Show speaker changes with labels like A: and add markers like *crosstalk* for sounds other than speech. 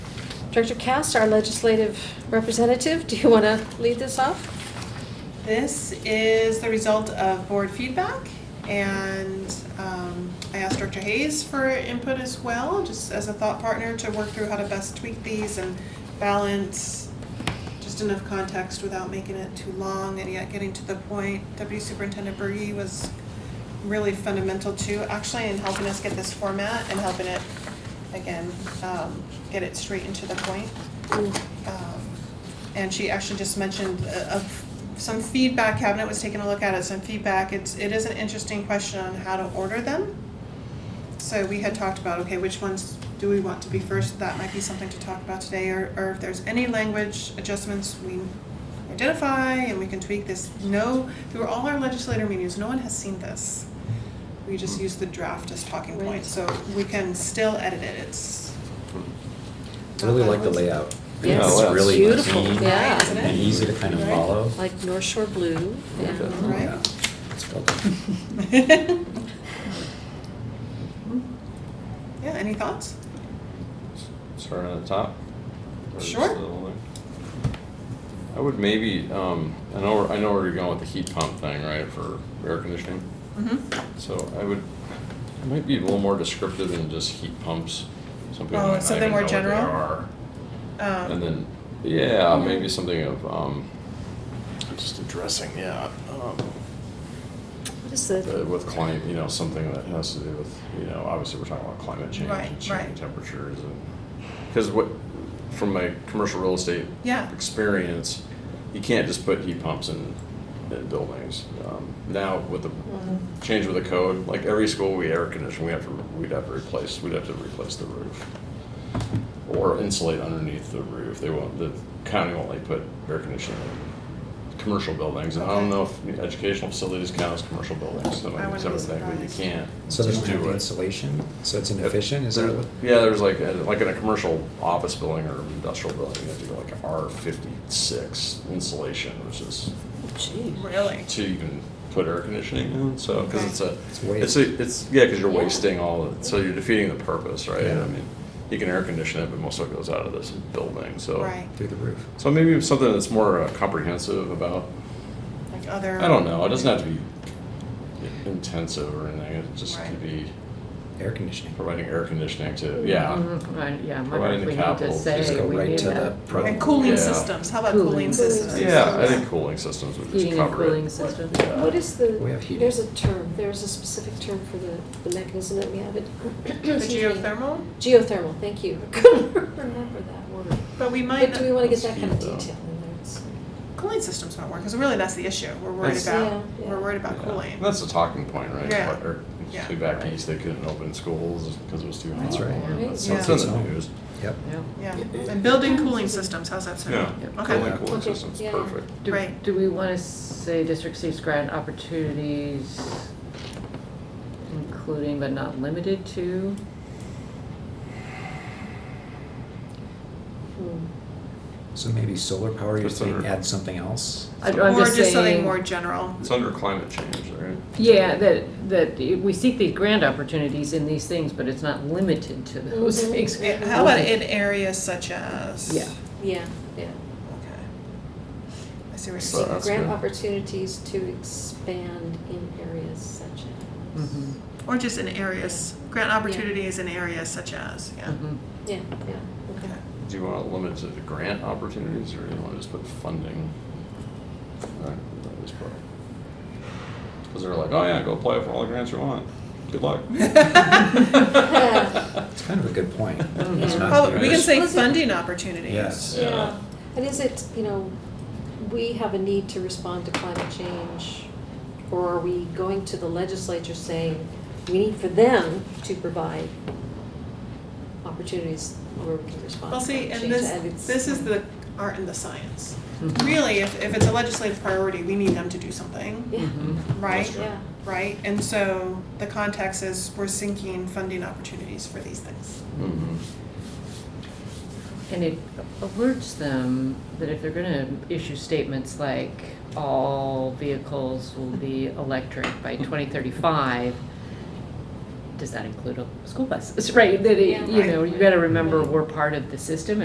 A: Director Cast, our legislative representative, do you want to lead this off?
B: This is the result of board feedback, and um, I asked Dr. Hayes for input as well, just as a thought partner to work through how to best tweak these and balance just enough context without making it too long and yet getting to the point. Deputy Superintendent Bergy was really fundamental too, actually, in helping us get this format and helping it, again, um, get it straight and to the point. Um, And she actually just mentioned uh, of some feedback, cabinet was taking a look at it, some feedback, it's, it is an interesting question on how to order them. So we had talked about, okay, which ones do we want to be first, that might be something to talk about today, or, or if there's any language adjustments we identify and we can tweak this. No, through all our legislator meetings, no one has seen this. We just use the draft as talking point, so we can still edit it, it's.
C: I really like the layout.
A: Yeah,
C: It's
D: Oh, wow.
C: really Mm-hmm.
A: Beautiful,
C: clean
B: Right, isn't
A: yeah.
B: it?
C: And easy to kind of
B: Right.
C: follow.
A: Like North Shore Blue, yeah.
C: Oh, yeah.
B: Right.
C: It's well done.
B: *laughs* Yeah, any thoughts?
D: Start on the top? Or just
B: Sure.
D: the whole thing? I would maybe, um, I know, I know where you're going with the heat pump thing, right, for air conditioning?
B: Mm-hmm.
D: So I would, I might be a little more descriptive than just heat pumps. Some people
B: Oh,
D: might not
B: something
D: even
B: more
D: know what they
B: general? Um,
D: are. And then, yeah, maybe something of, um, just addressing, yeah, um,
A: What is the,
D: Uh, With climate, you know, something that has to do with, you know, obviously we're talking about climate change
B: Right,
D: and
B: right.
D: changing temperatures and, because what, from my commercial real estate
B: Yeah.
D: experience, you can't just put heat pumps in, in buildings. Um, Now with the
B: Mm-hmm.
D: change with the code, like every school we air condition, we have to, we'd have to replace, we'd have to replace the roof. Or insulate underneath the roof. They won't, the county won't like put air conditioning in commercial buildings. And I
B: Okay.
D: don't know if educational facilities count as commercial buildings, so
B: I
D: maybe it's
B: wouldn't be
D: everything, but you
B: surprised.
D: can't.
C: So there's
D: just
C: no
D: do it.
C: insulation, so it's inefficient, is that
D: There-
C: what?
D: Yeah, there's like, a- like in a commercial office building or industrial building, you have to go like R fifty-six insulation, which is
A: gee,
B: Really?
D: to even put air conditioning in, so, because
B: Okay.
D: it's a,
C: It's
D: it's
C: waste.
D: a, it's, yeah, because you're wasting all, the- so you're defeating the purpose, right?
C: Yeah.
D: I mean, you can air condition it, but most of it goes out of this building, so.
B: Right,
C: Through the roof.
D: So maybe something that's more uh, comprehensive about,
B: like other.
D: I don't know, it doesn't have to be intensive or anything, it just could
B: Right.
D: be
C: Air conditioning.
D: providing air conditioning to, yeah.
E: Mhm, right, Yeah, I wonder
D: Providing
E: if
D: the
E: we need to
D: capital, just
E: say
C: go
E: we
C: right
E: need
C: to
E: that.
C: the-
B: And
D: Right.
B: cooling
D: Yeah.
B: systems, how about
E: Cooling.
B: cooling
E: Cooling.
B: systems?
D: Yeah, I think cooling systems would just
E: Heating and
D: cover
E: cooling
D: it.
E: system.
D: Yeah.
A: What is the,
C: We have heating.
A: there's a term, there's a specific term for the, the mechanism that we have it.
B: The
A: Excuse me.
B: geothermal,
A: Geothermal, thank you. I couldn't remember that word.
B: but we might,
A: But do we want to get that kind of
D: Speed, though.
A: detail in there? It's-
B: cooling systems might work, because really that's the issue, we're worried
D: That's-
B: about,
A: Yeah,
B: we're
A: yeah.
B: worried about
D: Yeah.
B: cooling.
D: That's a talking point, right?
B: Yeah.
D: Like, or-
B: Yeah.
D: Way back east, they couldn't open schools because it was too hot.
C: That's right.
D: Or-
A: Right.
D: So it's
B: Yeah.
D: in the news.
C: Yep.
E: Yeah.
B: Yeah, and building cooling systems, how's that sound?
D: Cooling,
B: Okay,
D: cooling
A: Okay,
D: systems,
A: yeah.
D: perfect.
E: Do-
B: Right.
E: Do we want to say district seeks grant opportunities, including but not limited to?
A: hmm.
C: So maybe solar power, you
D: Just
C: think
D: under-
C: add something else?
E: I- I'm
B: or
E: just
B: just something
E: saying-
B: more general,
D: It's under climate change, right?
E: Yeah, that, that we seek these grant opportunities in these things, but it's not limited to those
A: Mhm.
E: things.
B: Mm-hmm. Yeah, how about in areas such as?
E: Yeah.
A: Yeah, yeah.
B: Okay. I see what
D: So
B: you're saying.
D: that's
A: Grant
D: good.
A: opportunities to expand in areas such as.
E: Mhm,
B: Or just in areas, grant opportunities in areas such as, yeah.
E: mhm.
A: Yeah, yeah, okay.
B: Okay.
D: Do you want to limit to the grant opportunities or do you want to just put funding? Because they're like, oh yeah, go apply for all the grants you want. Good luck. *laughs*
C: It's kind of a good point.
E: Mhm.
C: It's not
B: Probably- we can
C: used.
B: say
A: Listen.
B: funding opportunities.
C: Yes.
D: Yeah.
A: Yeah, Um, and is it, you know, we have a need to respond to climate change, or are we going to the legislature saying, we need for them to provide opportunities where we can respond
B: Well,
A: to
B: see,
A: climate
B: and
A: change? Mm-hmm.
B: this,
A: it's-
B: this is the art and the science.
E: Mhm.
B: Really, if, if it's a legislative priority, we need them to do something,
A: Yeah,
E: Mhm.
B: right?
A: yeah,
B: Right, and so the context is we're seeking funding opportunities for these things.
D: Mhm.
E: And it alerts them that if they're gonna issue statements like, all vehicles will be electric by twenty thirty-five, *laughs* does that include a school bus? It's right, that it, you know, you gotta remember, we're part of the system